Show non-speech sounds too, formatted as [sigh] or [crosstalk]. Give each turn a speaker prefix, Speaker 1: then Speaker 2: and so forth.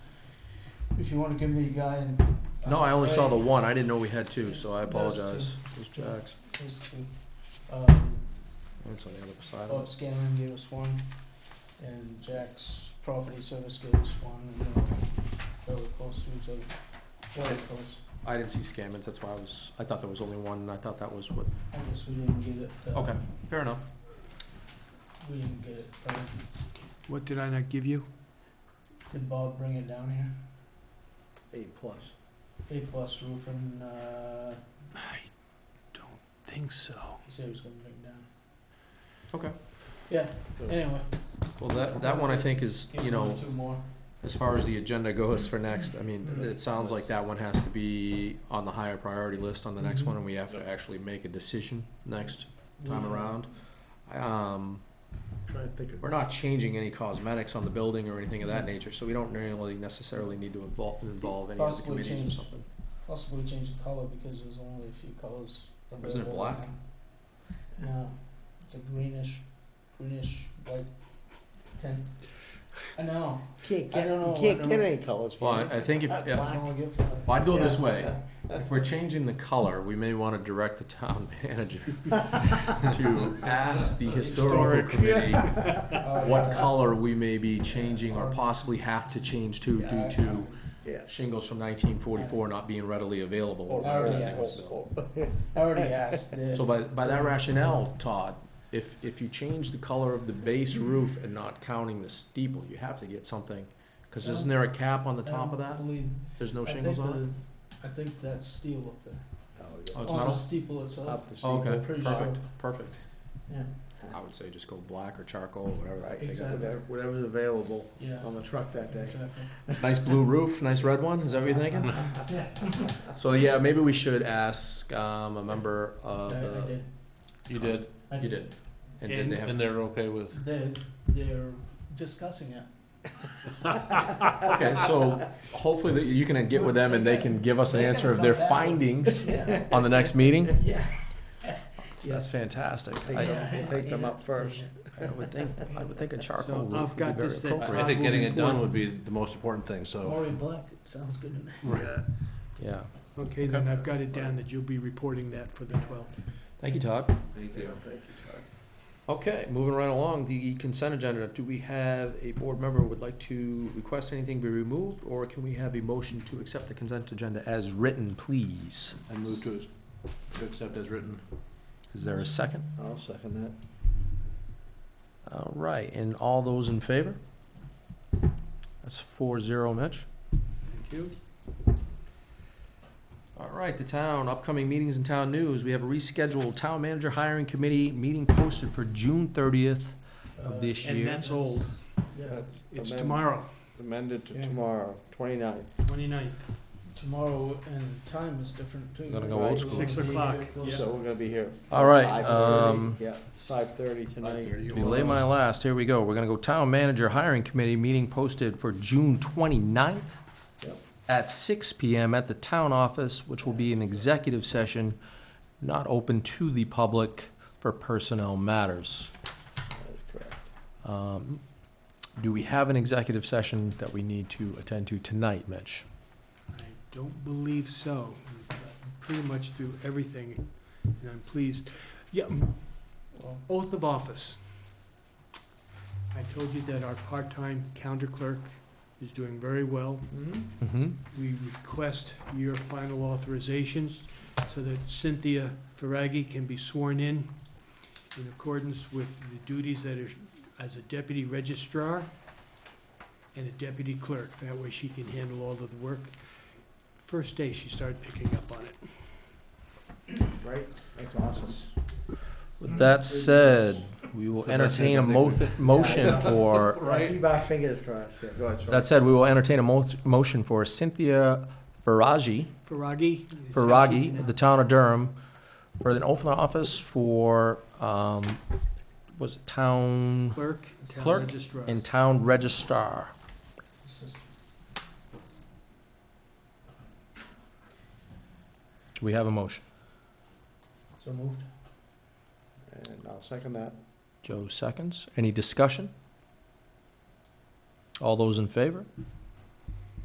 Speaker 1: if you wanna give the guy and. uh,
Speaker 2: No, I only saw the one. I didn't know we had two, so I apologize. It was Jack's.
Speaker 1: Those two, um,
Speaker 2: It's on the other side of
Speaker 1: Bob Scanlon gave us one, and Jack's Property Service gave us one, and they were fairly close to each other, fairly close.
Speaker 2: it. I didn't see Scammons, that's why I was, I thought there was only one, and I thought that was what,
Speaker 1: I guess we didn't get it, uh,
Speaker 2: okay, fair enough.
Speaker 1: we didn't get it, uh,
Speaker 3: What did I not give you?
Speaker 1: did Bob bring it down here?
Speaker 2: Eight plus.
Speaker 1: A plus roof and, uh,
Speaker 3: I don't think so.
Speaker 1: he said he was gonna bring it down.
Speaker 2: Okay.
Speaker 1: Yeah, anyway.
Speaker 2: Well, that, that one I think is,
Speaker 1: give
Speaker 2: you
Speaker 1: him
Speaker 2: know,
Speaker 1: Two more.
Speaker 2: as far as the agenda goes for next, I mean, it sounds like that one has to be on the higher priority list on the next one, and we have to actually make a decision next time around. Um,
Speaker 3: Try to think of.
Speaker 2: We're not changing any cosmetics on the building or anything of that nature, so we don't really necessarily need to involve, involve any of the
Speaker 1: Possibly
Speaker 2: committees or
Speaker 1: change.
Speaker 2: something.
Speaker 1: Possibly change the color because there's only a few colors.
Speaker 2: Isn't it
Speaker 1: available
Speaker 2: black?
Speaker 1: now. No, it's a greenish, greenish white tint. I know.
Speaker 4: Can't
Speaker 1: I
Speaker 4: get,
Speaker 1: don't know,
Speaker 4: you
Speaker 1: I
Speaker 4: can't
Speaker 1: don't
Speaker 4: get
Speaker 1: know.
Speaker 4: any colors.
Speaker 2: Well,
Speaker 4: can you?
Speaker 2: I, I think if,
Speaker 1: I
Speaker 2: yeah,
Speaker 1: don't wanna get for
Speaker 2: Well, I'd go this
Speaker 1: Yeah.
Speaker 2: way. if we're changing the color, we may wanna direct the town [laughs] manager
Speaker 1: [laughs]
Speaker 2: to ask the historical committee
Speaker 1: Uh,
Speaker 2: what
Speaker 1: yeah.
Speaker 2: color we may be changing or possibly have to change to due to
Speaker 4: Yeah.
Speaker 2: shingles from nineteen forty-four not being readily available.
Speaker 4: Or-
Speaker 2: or
Speaker 1: I already
Speaker 2: anything
Speaker 1: asked.
Speaker 2: else.
Speaker 1: I already asked. the-
Speaker 2: So by, by that rationale, Todd, if, if you change the color of the base roof and not counting the steeple, you have to get something. Cause isn't there a cap on the
Speaker 1: I
Speaker 2: top of
Speaker 1: don't
Speaker 2: that?
Speaker 1: believe-
Speaker 2: There's no
Speaker 1: I think
Speaker 2: shingles on it?
Speaker 1: the- I think that's steel up there.
Speaker 2: Oh, it's
Speaker 1: On the
Speaker 2: metal?
Speaker 1: steeple itself.
Speaker 4: Up the
Speaker 2: Oh,
Speaker 4: street.
Speaker 2: Okay,
Speaker 1: pretty
Speaker 2: perfect,
Speaker 1: sure.
Speaker 2: perfect.
Speaker 1: Yeah,
Speaker 2: I would say just go black or charcoal, whatever that
Speaker 4: Right,
Speaker 2: thing is.
Speaker 4: whatever- whatever's available
Speaker 1: yeah.
Speaker 2: Oh,
Speaker 4: on the truck that day.
Speaker 1: Exactly.
Speaker 2: Nice blue roof, nice red one, is that what you're thinking? So yeah, maybe we should ask, um, a member
Speaker 1: I, I
Speaker 2: of the.
Speaker 1: did.
Speaker 2: You did.
Speaker 1: I
Speaker 2: Uh, You did. And did they have,
Speaker 3: they're okay with.
Speaker 1: They, they're discussing [laughs] it.
Speaker 2: [laughs] okay, so hopefully that you can get with them and they can give us an
Speaker 1: They can
Speaker 2: answer of
Speaker 1: come
Speaker 2: their
Speaker 1: back.
Speaker 2: findings on the next meeting.
Speaker 1: [laughs] Yeah.
Speaker 2: That's fantastic.
Speaker 4: Take
Speaker 2: I,
Speaker 4: them, take them up first.
Speaker 2: I would think, I would think a charcoal
Speaker 3: So I've
Speaker 2: roof would be
Speaker 3: got
Speaker 2: very
Speaker 3: this that
Speaker 2: appropriate.
Speaker 3: I think getting it done would
Speaker 5: be the most important thing,
Speaker 1: Maury Black, it sounds good to me.
Speaker 4: Yeah.
Speaker 2: Yeah.
Speaker 3: Okay, then I've got it down that you'll be reporting that for the twelfth.
Speaker 2: Thank you, Todd.
Speaker 5: Thank
Speaker 4: Yeah,
Speaker 5: you.
Speaker 4: thank you, Todd.
Speaker 2: Okay, moving right along, the consent agenda. Do we have a board member who would like to request anything be removed? Or can we have a motion to accept the consent agenda as written, please?
Speaker 5: I move to, to accept as written.
Speaker 2: Is there a second?
Speaker 4: I'll second that.
Speaker 2: All right, and all those in favor? That's four zero, Mitch.
Speaker 3: Thank you.
Speaker 2: All right, the town, upcoming meetings and town news. We have a rescheduled town manager hiring committee meeting posted for June thirtieth
Speaker 1: Uh,
Speaker 2: of this year.
Speaker 3: And that's old.
Speaker 1: Yeah, uh,
Speaker 4: That's
Speaker 3: It's
Speaker 4: amend-
Speaker 3: tomorrow,
Speaker 4: Amended to
Speaker 1: Yeah.
Speaker 4: tomorrow, twenty-ninth.
Speaker 3: 29th.
Speaker 1: tomorrow and time is different too.
Speaker 2: Gotta go old
Speaker 1: It's
Speaker 2: school.
Speaker 1: gonna
Speaker 3: Six
Speaker 1: be
Speaker 3: o'clock,
Speaker 1: very close.
Speaker 3: Yeah.
Speaker 4: So we're gonna be here.
Speaker 2: All right,
Speaker 4: 5:30.
Speaker 2: um,
Speaker 4: Yeah, five-thirty tonight.
Speaker 2: Belay my last, here we go. We're gonna go town manager hiring committee meeting posted for June 29th
Speaker 4: Yep.
Speaker 2: at six PM at the town office, which will be an executive session not open to the public for personnel matters.
Speaker 4: That's correct.
Speaker 2: Um, Do we have an executive session that we need to attend to tonight, Mitch?
Speaker 3: I don't believe so. We've gotten Pretty much through everything, and I'm pleased. Yeah, mm,
Speaker 1: Well,
Speaker 3: oath of office. I told you that our part-time counter clerk is doing very well.
Speaker 2: Mm-hmm.
Speaker 3: We request your final authorizations so that Cynthia Ferraggi can be sworn in in accordance with the duties that are as a deputy registrar and a deputy clerk. That way she can handle all of the work. First day, she started picking up on it.
Speaker 4: Right, that's awesome.
Speaker 2: With that said, we will
Speaker 5: It's the best
Speaker 2: entertain a
Speaker 5: thing
Speaker 2: mo- motion
Speaker 4: Yeah.
Speaker 2: for
Speaker 4: Right. Keep our fingers crossed, yeah, go ahead, Sean.
Speaker 2: That said, we will entertain a mo- motion for Cynthia Faragi,
Speaker 3: Ferraggi? is
Speaker 2: Faragi,
Speaker 3: actually-
Speaker 2: of the town of Durham, for an oath of office for, um, was it town
Speaker 3: Clerk. town
Speaker 2: Clerk
Speaker 3: registrar.
Speaker 2: and town registrar?
Speaker 1: this is-
Speaker 2: Do we have a motion?
Speaker 1: So moved.
Speaker 4: And I'll second that.
Speaker 2: Joe seconds. Any discussion? All those in favor?